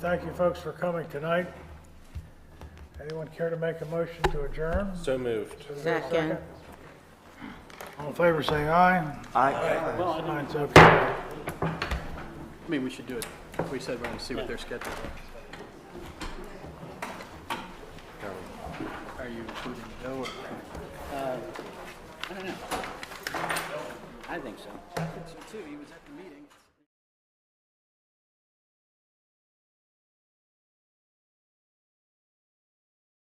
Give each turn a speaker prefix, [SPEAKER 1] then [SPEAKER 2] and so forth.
[SPEAKER 1] Thank you, folks, for coming tonight. Anyone care to make a motion to adjourn?
[SPEAKER 2] So moved.
[SPEAKER 3] Second.
[SPEAKER 1] All in favor, say aye.
[SPEAKER 4] Well, I
[SPEAKER 1] Signs up here.
[SPEAKER 4] don't- I mean, we should do it, we said we're gonna see what their schedule is. Are you including Joe or? Uh, I don't know. I think so. I think so too, he was at the meeting.